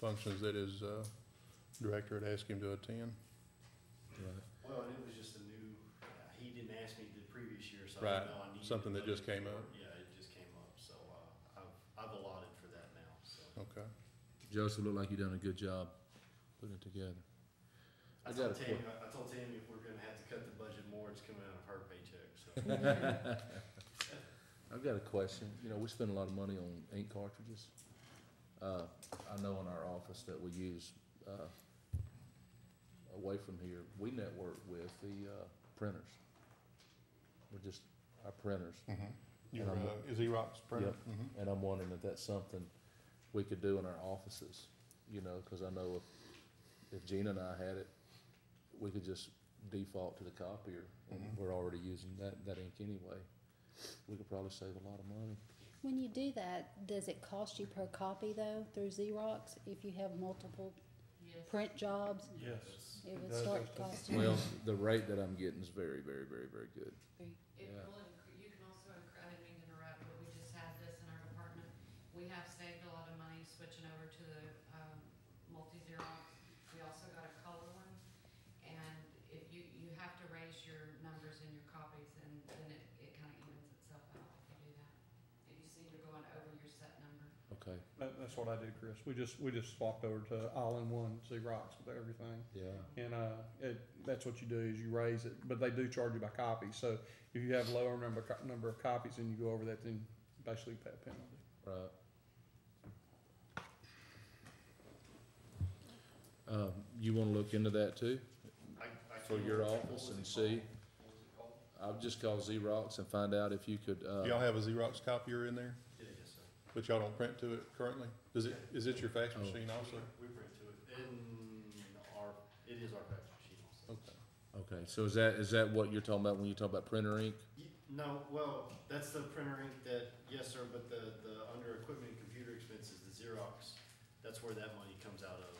functions that his uh, director had asked him to attend. Well, and it was just a new, uh, he didn't ask me the previous year, so Right. I didn't know I needed. Something that just another came up. report. Yeah, it just came up, so, uh, I've, I've allotted for that now, so. Okay. Joseph, looked like you done a good job putting it together. I I got a told Tammy, I I told Tammy if we're gonna have to cut the budget more, it's coming out of her paycheck, so. I've got a question. You know, we spend a lot of money on ink cartridges. Uh, I know in our office that we use, uh, away from here, we network with the, uh, printers. We're just, our printers. Your uh, Xerox printer? Mhm. And I'm wondering if that's something we could do in our offices, you know, cause I know if, if Gina and I had it, we could just default to the copier. and Mhm. We're already using that, that ink anyway. We could probably save a lot of money. When you do that, does it cost you per copy though through Xerox if you have multiple print jobs? Yes. It would does start have to- costing. Well, the rate that I'm getting is very, very, very, very good. It Yeah. will, incre- you can also, incre- I didn't mean to interrupt, but we just had this in our department. We have saved a lot of money switching over to the, um, multi-Xerox. We also got a color one. And if you, you have to raise your numbers in your copies and then it, it kinda evens itself out if you do that. If you see you're going over your set number. Okay, That, that's what I did, Chris. We just, we just swapped over to all-in-one Xerox with everything. yeah. And, uh, it, that's what you do is you raise it, but they do charge you by copy. So if you have lower number, co- number of copies and you go over that, then basically you pay a penalty. Right. Um, you wanna look into that too? I- I For can't- your what office was and it see. called? What was it called? I'll just call Xerox and find out if you could, Do y'all uh, have a Xerox copier in there, Yeah, yes, sir. but y'all don't print to it currently? Does it, is it your fax Oh. machine also? We we print to it, in our, it is our fax machine also. Okay. okay, so is that, is that what you're talking about when you talk about printer ink? Ye- No, well, that's the printer ink that, yes, sir, but the, the under equipment and computer expenses, the Xerox, that's where that money comes out of,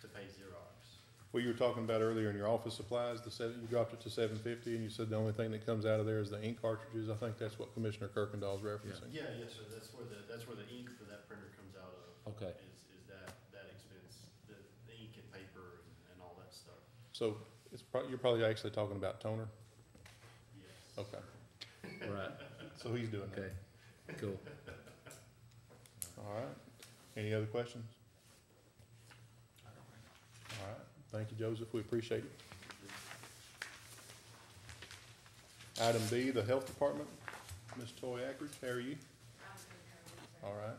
to pay Xerox. Well, you were talking about earlier in your office supplies, the seven, you dropped it to seven fifty and you said the only thing that comes out of there is the ink cartridges. I think that's what Commissioner Kirkendall's referencing. Yeah, yes, sir, that's where the, that's where the ink for that printer comes out of, Okay, is, is that, that expense, the, the ink and paper and- and all that stuff, So it's prob, you're probably actually talking about toner? yes. Okay, right, so he's doing that. okay, cool. All right. Any other questions? All right. Thank you, Joseph. We appreciate it. Item B, the Health Department. Ms. Toy Ackridge, how are you? I'm gonna go with that. All right.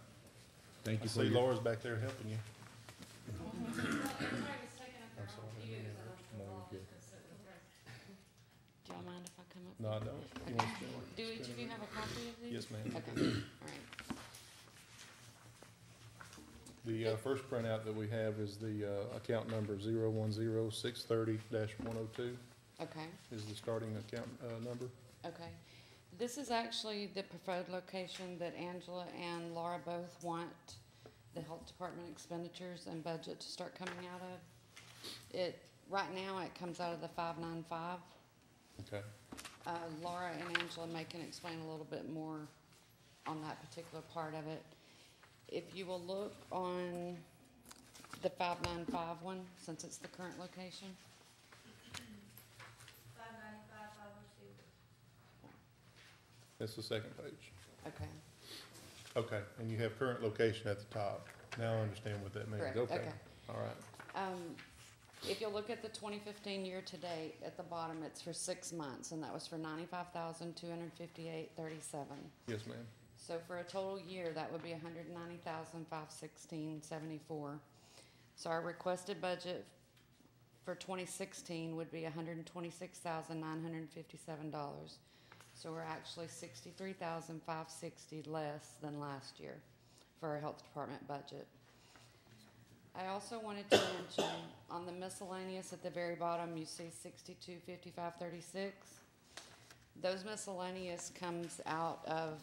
Thank I you for see your. Laura's back there helping you. Everybody was taking up their I'm own sorry. views and No, you're I'm all good. just gonna sit with the rest. Do y'all mind if I come up? No, I don't. You want to spin it? Do each of you have a copy of these? Yes, ma'am. Okay, all right. The uh, first printout that we have is the uh, account number zero one zero six thirty dash one oh two Okay, is the starting account uh, number. okay. This is actually the preferred location that Angela and Laura both want the health department expenditures and budget to start coming out of. It, right now, it comes out of the five nine five. Okay. Uh, Laura and Angela may can explain a little bit more on that particular part of it. If you will look on the five nine five one, since it's the current location. Five ninety-five, five oh two. That's the second page. Okay, Okay, and you have current location at the top. Now I understand what that means. correct, Okay. okay. All right. Um, if you look at the twenty fifteen year to date, at the bottom, it's for six months, and that was for ninety-five thousand, two hundred fifty-eight, thirty-seven. Yes, ma'am. So for a total year, that would be a hundred ninety thousand, five sixteen, seventy-four. So our requested budget for twenty sixteen would be hundred and twenty-six thousand, nine hundred and fifty-seven dollars. So we're actually sixty-three thousand, five sixty less than last year for our health department budget. I also wanted to mention, on the miscellaneous at the very bottom, you see sixty-two, fifty-five, thirty-six. Those miscellaneous comes out of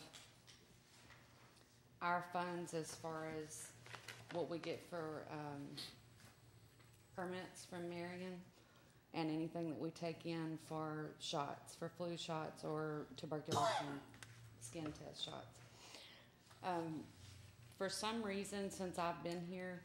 our funds as far as what we get for, um, permits from Marion and anything that we take in for shots, for flu shots or tuberculosis and skin test shots. Um, for some reason, since I've been here,